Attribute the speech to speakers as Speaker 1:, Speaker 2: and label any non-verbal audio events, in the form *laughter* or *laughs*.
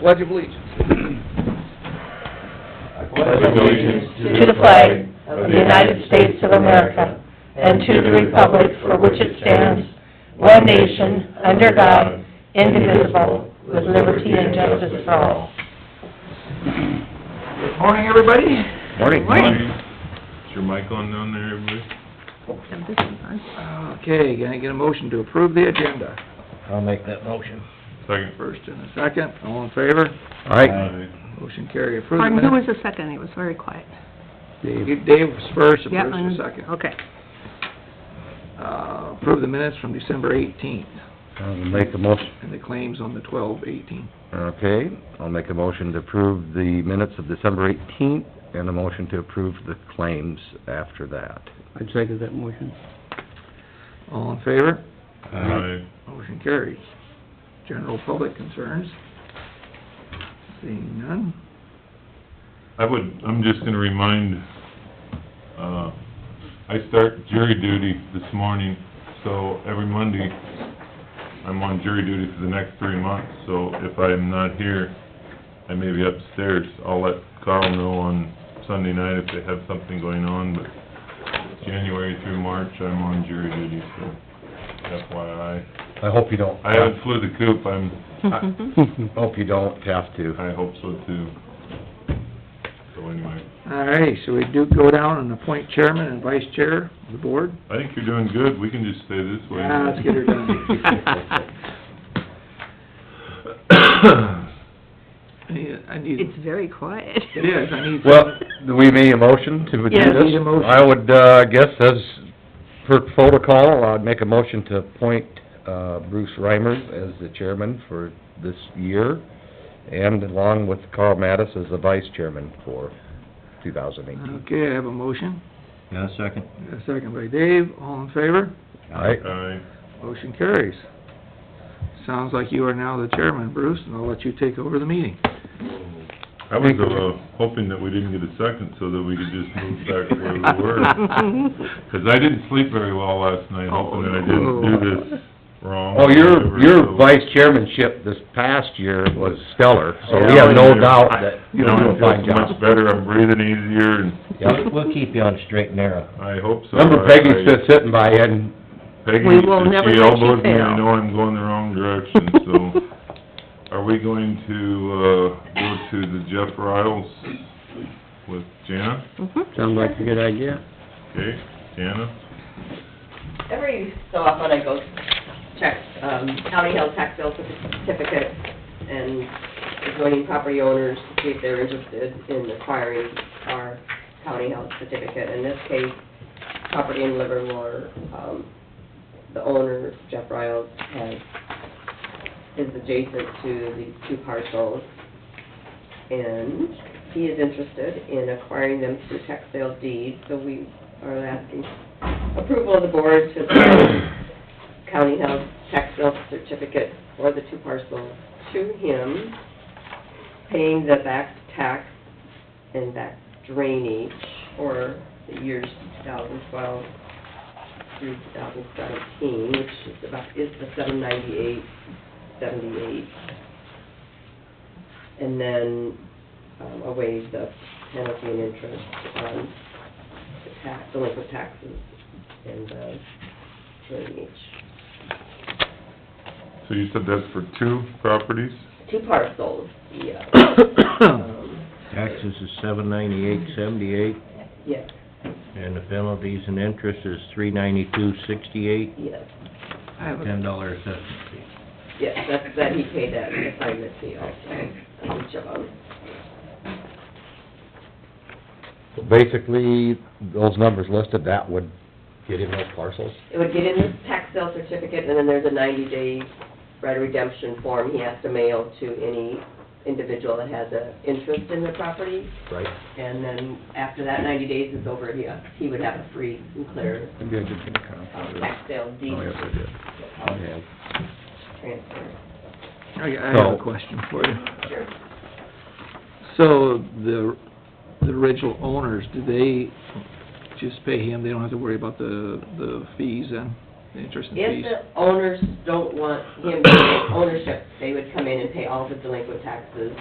Speaker 1: Pledge of Allegiance.
Speaker 2: I pledge allegiance
Speaker 3: to the flag of the United States of America and to the republic for which it stands, one nation, under God, indivisible, with liberty and justice for all.
Speaker 1: Good morning, everybody.
Speaker 4: Morning.
Speaker 1: Morning.
Speaker 4: Is your mic on down there, everybody?
Speaker 1: Okay, can I get a motion to approve the agenda?
Speaker 2: I'll make that motion.
Speaker 4: Second.
Speaker 1: First and a second, all in favor?
Speaker 2: Uh,
Speaker 1: Motion carried, approve the
Speaker 3: Pardon, who was
Speaker 1: minutes.
Speaker 3: the second? It was very quiet.
Speaker 1: Dave Dave was first, and
Speaker 3: Yeah,
Speaker 1: Bruce was
Speaker 3: I'm-
Speaker 1: second.
Speaker 3: Okay.
Speaker 1: Uh, approve the minutes from December eighteenth,
Speaker 2: I'll make a motion,
Speaker 1: and the claims on the twelve eighteen.
Speaker 2: okay, I'll make a motion to approve the minutes of December eighteenth, and a motion to approve the claims after that.
Speaker 5: I'd second that motion.
Speaker 1: All in favor?
Speaker 4: Aye.
Speaker 1: Motion carries. General public concerns? Seeing none?
Speaker 4: I would, I'm just gonna remind, uh, I start jury duty this morning, so every Monday, I'm on jury duty for the next three months, so if I'm not here, I may be upstairs. I'll let Carl know on Sunday night if they have something going on, but January through March, I'm on jury duty, so FYI.
Speaker 2: I hope you don't,
Speaker 4: I haven't flew the coop, I'm,
Speaker 1: Mm-hmm.
Speaker 2: hope you don't have to.
Speaker 4: I hope so too. So anyway,
Speaker 1: All right, so we do go down and appoint chairman and vice chair of the board?
Speaker 4: I think you're doing good, we can just stay this way.
Speaker 1: Yeah, let's
Speaker 4: *laughs*
Speaker 1: get her
Speaker 2: *laughs*
Speaker 1: done. I need, I need,
Speaker 3: It's very quiet.
Speaker 1: it is, I need.
Speaker 2: Well, do we made a motion to do this?
Speaker 3: Yes.
Speaker 1: Need a motion.
Speaker 2: I would, uh, guess as per protocol, I'd make a motion to appoint, uh, Bruce Reimers as the chairman for this year, and along with Carl Mattis as the vice chairman for two thousand eighteen.
Speaker 1: Okay, I have a motion,
Speaker 2: Yeah, second.
Speaker 1: a second by Dave, all in favor?
Speaker 2: Aye.
Speaker 4: Aye.
Speaker 1: Motion carries. Sounds like you are now the chairman, Bruce, and I'll let you take over the
Speaker 2: *coughs*
Speaker 1: meeting. *coughs*
Speaker 4: I was, uh, hoping that we didn't get a second so that we could just move back to where we
Speaker 3: *laughs*
Speaker 4: were. 'Cause I didn't sleep very well last night,
Speaker 3: Oh,
Speaker 4: hoping that I didn't do this wrong.
Speaker 2: Well, your,
Speaker 4: or
Speaker 2: your
Speaker 4: whatever, so-
Speaker 2: vice chairmanship this past year was stellar, so we have no doubt that
Speaker 4: You
Speaker 2: you're
Speaker 4: know,
Speaker 2: doing a
Speaker 4: I
Speaker 2: fine
Speaker 4: feel much
Speaker 2: job.
Speaker 4: better, I'm breathing easier, and
Speaker 2: Yeah.
Speaker 6: We'll keep you on straight and narrow.
Speaker 4: I hope so.
Speaker 2: Remember
Speaker 4: I-
Speaker 2: Peggy's just sitting by you and,
Speaker 4: Peggy,
Speaker 3: We will
Speaker 4: if
Speaker 3: never
Speaker 4: she
Speaker 3: let you
Speaker 4: elbows me, I
Speaker 3: fail.
Speaker 4: know I'm going the wrong
Speaker 3: *laughs*
Speaker 4: direction, so... Are we going to, uh, go to the Jeff Riles with Jana?
Speaker 3: Mhm.
Speaker 5: Sounds like a good idea.
Speaker 4: Okay, Jana?
Speaker 7: every so often I go check um, county held tax sale certificate and adjoining property owners to see if they're interested in acquiring our county held certificate. In this case, property in Livermore, um, the owner, Jeff Riles, has, is adjacent to these two parcels. And he is interested in acquiring them through tax sale deed, so we are asking approval of the board to sell county held tax sale certificate for the two parcels to him, paying the back tax and back drainage for the years 2012 through 2017, which is about, is the 798, 78. And then um, away the penalty and interest on the tax, delinquent taxes and the drainage.
Speaker 4: So you said that's for two properties?
Speaker 7: Two parcels, yeah. Um,
Speaker 6: Taxes is seven ninety-eight seventy-eight,
Speaker 7: Yes,
Speaker 6: and the penalties and interest is three ninety-two sixty-eight,
Speaker 7: yes,
Speaker 1: I have a,
Speaker 6: ten dollar assessment fee.
Speaker 7: yes, that, that he paid that assignment fee um, also, on each of them.
Speaker 2: basically, those numbers listed, that would get him those parcels.
Speaker 7: It would get in his tax sale certificate, and then there's a ninety-day right of redemption form he has to mail to any individual that has a interest in the property.
Speaker 2: Right.
Speaker 7: And then after that ninety days is over, he, he would have a free and clear um, tax sale
Speaker 2: Oh,
Speaker 7: deed transfer.
Speaker 1: I I have a
Speaker 2: So-
Speaker 1: question for you. So the, the original owners, do they just pay him? They don't have to worry about the, the fees then? the interest and
Speaker 7: If
Speaker 1: fees.
Speaker 7: the owners don't want him to take ownership, they would come in and pay all the delinquent taxes